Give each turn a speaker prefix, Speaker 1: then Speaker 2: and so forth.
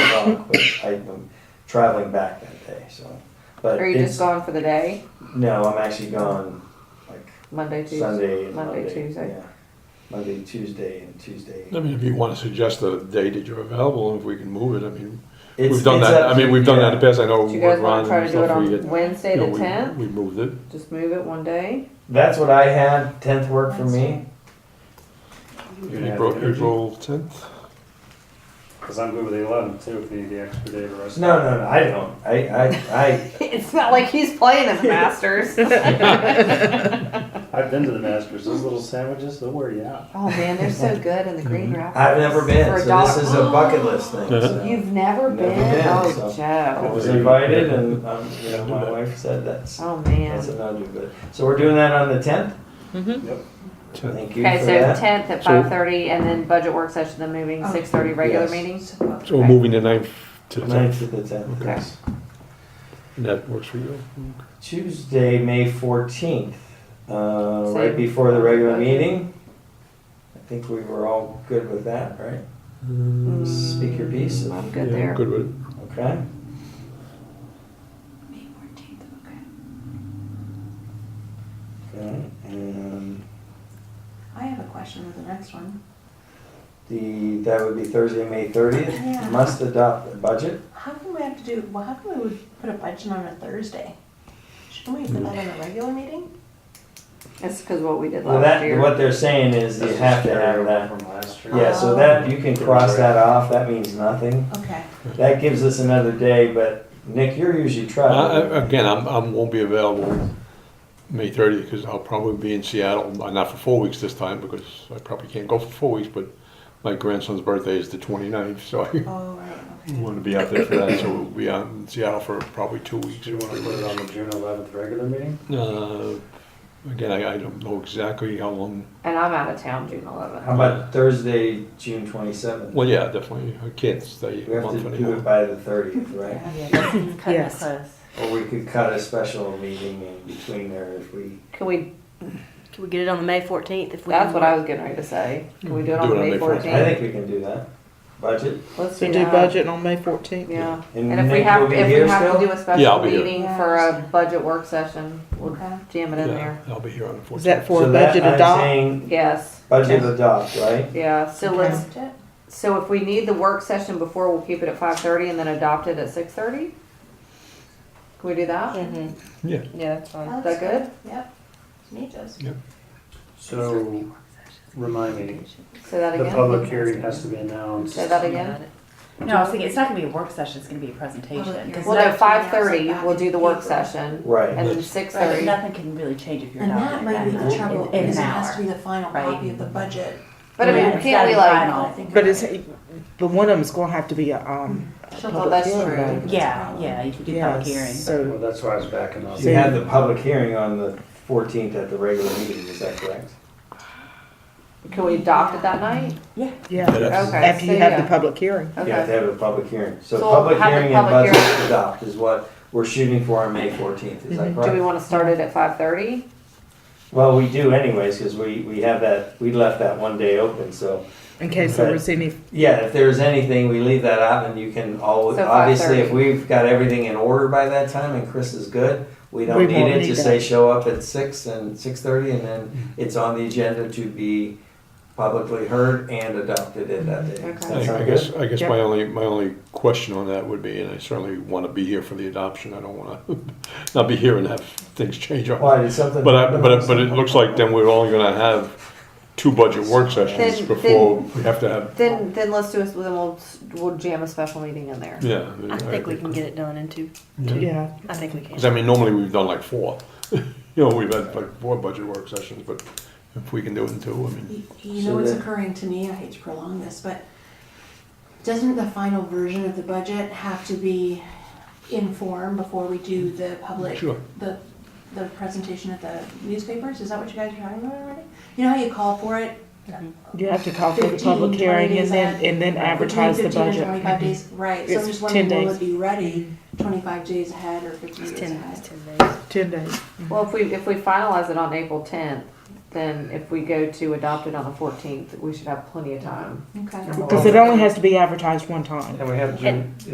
Speaker 1: o'clock, but I'm traveling back that day, so. But
Speaker 2: Are you just
Speaker 1: it's,
Speaker 2: gone for the day?
Speaker 1: no, I'm actually gone like
Speaker 2: Monday, Tuesday?
Speaker 1: Sunday and
Speaker 2: Monday,
Speaker 1: Monday.
Speaker 2: Tuesday.
Speaker 1: Yeah. Monday, Tuesday and Tuesday.
Speaker 3: I mean, if you want to suggest a day that you're available, and if we can move it, I mean,
Speaker 1: It's-
Speaker 3: we've done
Speaker 1: it's
Speaker 3: that.
Speaker 1: up
Speaker 3: I mean,
Speaker 1: to-
Speaker 3: we've done that in
Speaker 1: yeah.
Speaker 3: the past. I know
Speaker 2: Do you
Speaker 3: when
Speaker 2: guys wanna
Speaker 3: Ron
Speaker 2: try
Speaker 3: and
Speaker 2: to do it
Speaker 3: stuff, we
Speaker 2: on
Speaker 3: had-
Speaker 2: Wednesday
Speaker 3: you know,
Speaker 2: the
Speaker 3: we-
Speaker 2: tenth?
Speaker 3: We moved it.
Speaker 2: Just move it one day?
Speaker 1: That's what I had, tenth worked for me. Yeah,
Speaker 3: April,
Speaker 4: energy.
Speaker 3: April tenth.
Speaker 4: Because I'm good with the 11th too, if you need the extra day to rest.
Speaker 1: No, no, no, I don't. I, I, I,
Speaker 2: It's not like he's playing at the Masters.
Speaker 4: I've been to the Masters, those little sandwiches, they'll wear you out.
Speaker 2: Oh man, they're so good in the Green Rapids.
Speaker 1: Mm-hmm. I've never been,
Speaker 2: For a
Speaker 1: so
Speaker 2: dollar-
Speaker 1: this is a bucket list thing.
Speaker 3: Uh-huh.
Speaker 1: so.
Speaker 2: You've never
Speaker 1: Never
Speaker 2: been?
Speaker 1: been,
Speaker 2: oh,
Speaker 1: so- I
Speaker 2: Joe.
Speaker 1: was invited and, um, you know, my wife said that's,
Speaker 2: Oh
Speaker 1: that's
Speaker 2: man.
Speaker 1: what I'll do, but, so we're doing that on the tenth? Thank
Speaker 3: Mm-hmm. tenth.
Speaker 1: you
Speaker 2: Mm-hmm. Okay,
Speaker 1: for
Speaker 2: so
Speaker 1: that.
Speaker 2: tenth at
Speaker 3: So-
Speaker 2: five thirty, and then budget work session, then moving six thirty regular
Speaker 1: Yes.
Speaker 2: meetings.
Speaker 3: So we're moving the ninth to the
Speaker 1: Ninth
Speaker 3: tenth.
Speaker 1: to the tenth,
Speaker 2: Okay.
Speaker 1: yes.
Speaker 3: And that works for you.
Speaker 1: Tuesday, May fourteenth, uh, right
Speaker 2: Same.
Speaker 1: before the regular
Speaker 2: Okay.
Speaker 1: meeting. I think we were all good with that, right?
Speaker 3: Mm,
Speaker 1: Speak your piece.
Speaker 2: I'm
Speaker 3: yeah,
Speaker 2: good
Speaker 3: I'm
Speaker 2: there.
Speaker 3: Good with it.
Speaker 1: Okay,
Speaker 5: May fourteenth, okay.
Speaker 1: okay, and
Speaker 5: I have a question with the next one.
Speaker 1: the, that would be Thursday, May thirtieth.
Speaker 5: Yeah.
Speaker 1: Must adopt the budget.
Speaker 5: How come we have to do, well, how come we would put a budget on a Thursday? Shouldn't we put that in a regular meeting?
Speaker 2: That's because what we did
Speaker 1: Well,
Speaker 2: last
Speaker 1: that,
Speaker 2: year.
Speaker 1: what they're saying is you
Speaker 4: This is Oh.
Speaker 1: have to have
Speaker 4: carryover
Speaker 1: that.
Speaker 4: From last year.
Speaker 1: Yeah, so that, you can cross that off, that means nothing.
Speaker 5: Okay.
Speaker 1: That gives us another day, but Nick, you're usually
Speaker 3: I- I-
Speaker 1: traveling.
Speaker 3: Again, I'm, I won't be available May thirtieth because I'll probably be in Seattle, uh, not for four weeks this time because I probably can't go for four weeks, but my grandson's birthday is the 29th, so I
Speaker 5: Oh, right, okay.
Speaker 3: want to be out there for that, so we'll be out in Seattle for probably two weeks.
Speaker 4: Do you want to put it on the June 11th regular meeting?
Speaker 3: Uh, Again, I, I don't know exactly how long,
Speaker 2: And I'm out of town June
Speaker 1: How
Speaker 2: eleventh.
Speaker 1: about Thursday, June twenty-seventh?
Speaker 3: well, yeah, definitely, I can't stay
Speaker 1: We
Speaker 3: a
Speaker 1: have
Speaker 3: month
Speaker 1: to
Speaker 3: and
Speaker 1: do
Speaker 3: a
Speaker 1: it
Speaker 3: half.
Speaker 1: by the thirtieth, right?
Speaker 6: Yes.
Speaker 1: Or we could cut a special meeting in between there if we,
Speaker 2: Can we,
Speaker 6: Can we get it on the May fourteenth if we?
Speaker 2: that's what I was getting ready to say. Can we do it on May
Speaker 3: 14th.
Speaker 1: I
Speaker 2: fourteenth?
Speaker 1: think we can do that. Budget,
Speaker 2: Let's
Speaker 6: So
Speaker 2: do
Speaker 6: do
Speaker 2: that.
Speaker 6: budget on May fourteenth?
Speaker 2: Yeah.
Speaker 1: and
Speaker 2: And if we
Speaker 1: Nick
Speaker 2: have,
Speaker 1: Mm-hmm. will be
Speaker 2: if we
Speaker 1: here
Speaker 2: have to do
Speaker 1: still?
Speaker 2: a
Speaker 3: Yeah,
Speaker 2: special
Speaker 3: I'll be here.
Speaker 2: meeting for a budget work session, we'll
Speaker 5: Okay.
Speaker 2: jam it in
Speaker 3: Yeah,
Speaker 2: there.
Speaker 3: I'll be here on the
Speaker 6: Is
Speaker 3: fourteenth.
Speaker 6: that for
Speaker 1: So that,
Speaker 6: budget
Speaker 1: I'm
Speaker 6: adopt?
Speaker 1: saying
Speaker 2: Yes,
Speaker 1: Budget
Speaker 6: Okay.
Speaker 1: adopt, right?
Speaker 2: yeah, so
Speaker 6: Okay.
Speaker 2: let's,
Speaker 5: Budget?
Speaker 2: so if we need the work session before, we'll keep it at five thirty and then adopt it at six thirty? Can we do that?
Speaker 6: Mm-hmm.
Speaker 3: Yeah.
Speaker 6: Yeah, that's fine.
Speaker 2: Is that good?
Speaker 5: Yep. Need those.
Speaker 4: So, remind me,
Speaker 2: Say that
Speaker 4: the
Speaker 2: again?
Speaker 4: public hearing has to be announced.
Speaker 2: Say that again?
Speaker 7: No, I was thinking, it's not gonna be a work session, it's gonna be a presentation. 'cause
Speaker 2: Well,
Speaker 7: no-
Speaker 2: no, five thirty, we'll do the work session
Speaker 1: Right,
Speaker 2: and then six
Speaker 7: right, but
Speaker 2: thirty.
Speaker 7: nothing can really change if you're
Speaker 5: And
Speaker 7: not.
Speaker 5: that
Speaker 7: in
Speaker 5: might be the
Speaker 7: in-
Speaker 5: trouble,
Speaker 7: In
Speaker 5: because
Speaker 7: an
Speaker 5: it has to
Speaker 7: hour.
Speaker 5: be the final
Speaker 7: Right.
Speaker 5: copy of the budget.
Speaker 2: But I
Speaker 7: Yeah,
Speaker 2: mean,
Speaker 7: it's
Speaker 2: can't we
Speaker 7: gotta be
Speaker 2: like,
Speaker 7: final.
Speaker 6: But it's, but one of them's gonna have to be a, um. a
Speaker 2: Sure,
Speaker 6: public
Speaker 2: Oh, that's
Speaker 6: hearing,
Speaker 2: true.
Speaker 6: right?
Speaker 7: Yeah, yeah, you can do
Speaker 6: Yeah,
Speaker 7: public hearing.
Speaker 4: Well,
Speaker 6: So,
Speaker 4: that's why I was backing off.
Speaker 1: you had the public hearing on the fourteenth at the regular meeting, is that correct?
Speaker 2: can we adopt it that night?
Speaker 3: Yeah.
Speaker 6: yeah,
Speaker 2: Okay.
Speaker 6: after you
Speaker 2: so
Speaker 6: have
Speaker 2: yeah.
Speaker 6: the public hearing.
Speaker 1: You have to
Speaker 2: Okay,
Speaker 1: have a public hearing. So
Speaker 2: So
Speaker 1: public
Speaker 2: have the
Speaker 1: hearing and
Speaker 2: public
Speaker 1: budget adopt is what we're shooting for on May 14th, is that
Speaker 2: Mm-hmm. do we
Speaker 1: correct?
Speaker 2: wanna start it at five thirty?
Speaker 1: Well, we do anyways, because we, we have that, we left that one day open, so.
Speaker 6: In case there
Speaker 1: Okay.
Speaker 6: was any,
Speaker 1: Yeah, if there's anything, we leave that out and you can always,
Speaker 2: So
Speaker 1: obviously, if
Speaker 2: 5:30.
Speaker 1: we've got everything in order by that time and Chris is good, we
Speaker 6: We
Speaker 1: don't need
Speaker 6: won't
Speaker 1: it,
Speaker 6: need Mm-hmm.
Speaker 1: just
Speaker 6: that.
Speaker 1: say show up at six and 6:30 and then it's on the agenda to be publicly heard and adopted at that day.
Speaker 2: Okay.
Speaker 1: Does that
Speaker 3: I I
Speaker 1: sound
Speaker 3: guess,
Speaker 1: good?
Speaker 3: I guess
Speaker 6: Yep.
Speaker 3: my only, my only question on that would be, and I certainly want to be here for the adoption, I don't want to not be here and have things change on
Speaker 1: Why, did something?
Speaker 3: But I, but, it- but it looks like then we're only gonna have two budget work sessions
Speaker 2: Then-
Speaker 3: before we have to have,
Speaker 2: Then, then let's do it, then we'll, we'll jam a special meeting in there.
Speaker 3: yeah.
Speaker 8: I think we can get it done in two,
Speaker 6: yeah,
Speaker 8: I think we
Speaker 3: Cause
Speaker 8: can.
Speaker 3: I mean, normally we've done like four, you know, we've had like four budget work sessions, but if we can do it in two, I mean,
Speaker 5: You- You
Speaker 1: So
Speaker 5: know what's
Speaker 1: that-
Speaker 5: occurring to me, I hate to prolong this, but doesn't the final version of the budget have to be in form before we do the public,
Speaker 3: Sure.
Speaker 5: the, the presentation at the newspapers? Is that what you guys are talking about already? You know how you call for it?
Speaker 6: you have to call for the
Speaker 5: 15,
Speaker 6: public hearing
Speaker 5: 20
Speaker 6: and
Speaker 5: days
Speaker 6: then,
Speaker 5: out.
Speaker 6: and then advertise the
Speaker 5: Between 15 and Twenty-five
Speaker 6: budget. Mm-hmm.
Speaker 5: days, right, so I'm
Speaker 6: It's
Speaker 5: just wondering,
Speaker 6: 10
Speaker 5: will
Speaker 6: days. Mm-hmm.
Speaker 5: it be ready twenty-five days ahead or fifteen
Speaker 8: It's
Speaker 5: days
Speaker 8: ten,
Speaker 5: ahead?
Speaker 8: it's ten days.
Speaker 6: Ten days.
Speaker 2: Well, if we, if we finalize it on April tenth, then if we go to adopt it on the fourteenth, we should have plenty of time.
Speaker 5: Okay.
Speaker 6: Because it only has to be advertised one time.
Speaker 1: And we have June,